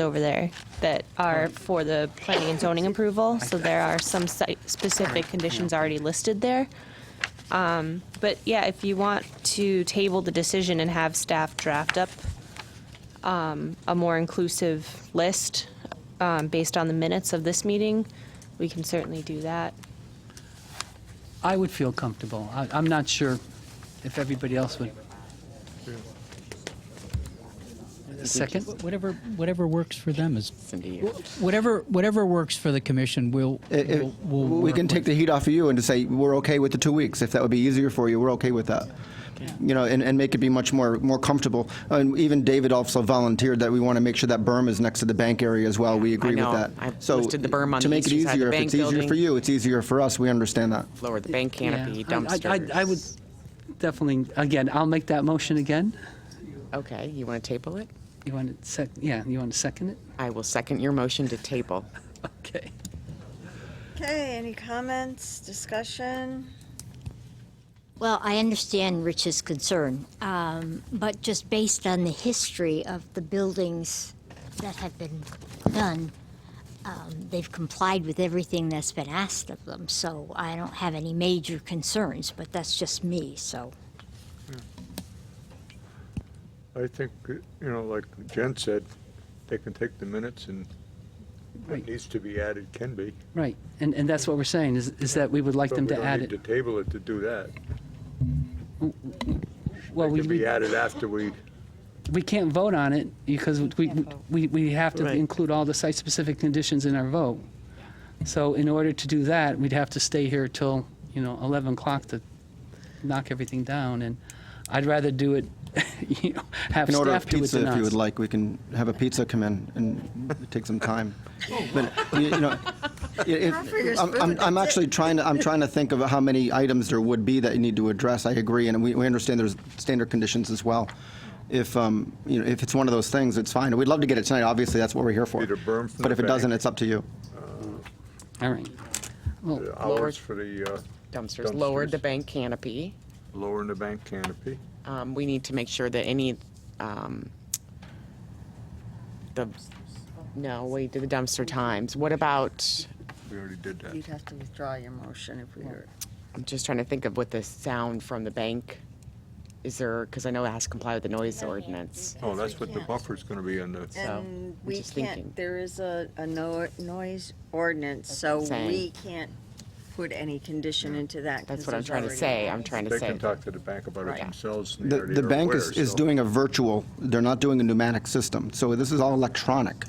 over there that are for the planning and zoning approval, so there are some site specific conditions already listed there. Um, But yeah, if you want to table the decision and have staff draft up um, a more inclusive list um, based on the minutes of this meeting, we can certainly do that. I would feel comfortable. I, I'm not sure if everybody else would. A second? Whatever, whatever works for them is, Cindy, whatever, whatever works for the commission, we'll, It- it- we'll, we'll Eh, we work can take with. the heat off of you and just say, we're okay with the two weeks. If that would be easier for you, we're okay with that. You know, and, and make it be much more, more comfortable. And even David also volunteered that we want to make sure that berm is next to the bank area as well. We agree know. with that. I've So listed the berm on to the make it eastern side of the easier, bank If it's easier building. for you, it's easier for us. We understand that. lower the bank canopy, Yeah. I- I- dumpsters. I- I would definitely, again, I'll make that motion again. Okay, you want to table it? You want to sec, yeah, you want to second it? I will second your motion to table. Okay. Okay, any comments, discussion? Well, I understand Rich's concern, um, but just based on the history of the buildings that have been done, um, they've complied with everything that's been asked of them, so I don't have any major concerns, but that's just me, so. I think, you know, like Jen said, they can take the minutes and Right. what needs to be added can be. Right, and, and that's what we're saying, is, is that we would like But them we to don't add need it. to table it to do that. Well, It we, can be we, added after we, we can't vote on it because we, we, we have to Right. include all the site-specific conditions in our vote. So in order to do that, we'd have to stay here till, you know, 11 o'clock to knock everything down, and I'd rather do it, you know, have can order a staff do it pizza than if you would us. like. We can have a pizza come in and take some time. But, you you know, if- Offer your I'm, spoon, I'm, I'm that's actually trying to, I'm trying to think of how many items there would be that you need to address. I agree, and we, we understand there's standard conditions as well. If, um, you know, if it's one of those things, it's fine. We'd love to get it tonight, obviously, that's what we're here for. Need a berm for But the if it doesn't, bank. it's up to you. All right, Oh, the Lower- uh, hours for the, uh, Dumpsters, lowered the Dumpsters. bank canopy. lowering the bank canopy. Um, We need to make sure that any, um, the, no, we did the dumpster times. What about, We already did that. You'd have to withdraw your motion if we were. I'm just trying to think of what the sound from the bank, is there, because I know it has to comply with the noise ordinance. Oh, that's what the buffer's gonna be on the, And I'm we just thinking. can't, there is a, a no, noise ordinance, so I'm saying. we can't put any condition into that. That's 'cause what I'm there's trying to already a say, law. I'm trying to they say. can talk to the bank about it Right. themselves. and they The, already the are bank aware, is, is so- doing a virtual, they're not doing a pneumatic system, so this is all electronic.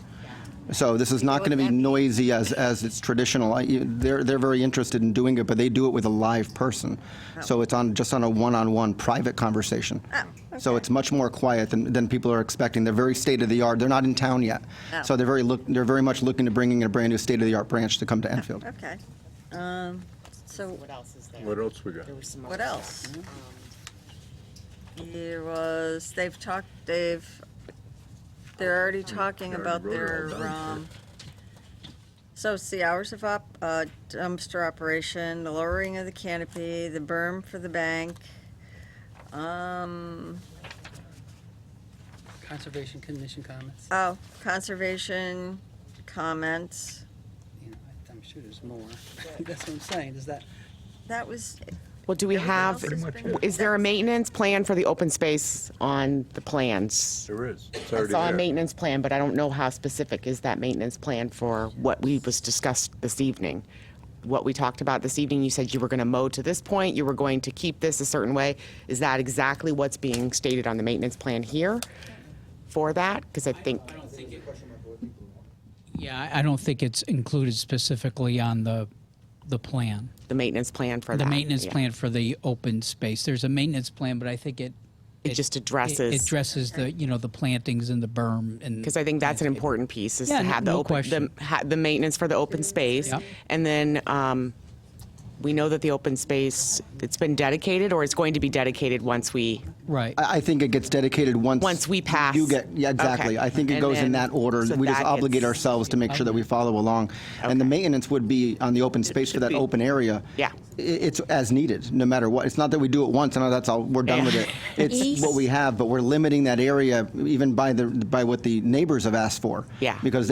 So this is not what going to be that means? noisy as, as it's traditional. I- you- They're, they're very interested in doing it, but they do it with a live person. Oh. So it's on, just on a one-on-one private conversation. So it's much more quiet than, than people are expecting. They're very state-of-the-art, they're not in town yet. Oh. So they're very, look- they're very much looking to bringing in a brand-new state-of-the-art branch to come to Enfield. Okay, um, so What else is there? What else we got? There was some what other- else? Um, There was, they've talked, they've, they're already talking Yeah, I about Oh, wrote it all their, down, um, so it's the hours of op, uh, dumpster operation, the lowering of the canopy, the berm for the bank. Um, Conservation Commission comments? oh, conservation comments, You know, I'm sure there's more. That's what I'm saying, is that, that was, Well, do we Everything have, else is Pretty much it. is there a maintenance plan for the open space on the plans? There is. It's I already saw a there. maintenance plan, but I don't know how specific is that maintenance plan for what we was discussed this evening. What we talked about this evening, you said you were going to mow to this point, you were going to keep this a certain way. Is that exactly what's being stated on the maintenance plan here for that? Because I think, Yeah, I- I don't think it's included specifically on the, the plan, the maintenance plan for that. the maintenance yeah. plan for the open space. There's a maintenance plan, but I think it. It just It addresses, addresses the, you know, the plantings and the berm and. because I think that's an important piece, is to Mm-hmm. Yeah, have the no open, the, question. ha- the maintenance for the open space. Yep. And then um, we know that the open space, it's been dedicated or it's going to be dedicated once we, Right. I, I think it gets dedicated once. Once we pass. You get, yeah, exactly. Okay. I think it And goes in then- that order. so We just that obligate gets- ourselves to make sure that we follow along. And the Okay. maintenance would be on the open space for that be- open area. Yeah. I- It's as needed, no matter what. It's not that we do it once and that's all, we're done with it. It's East. what we have, but we're limiting that area even by the, by what the neighbors have asked for. Yeah. Because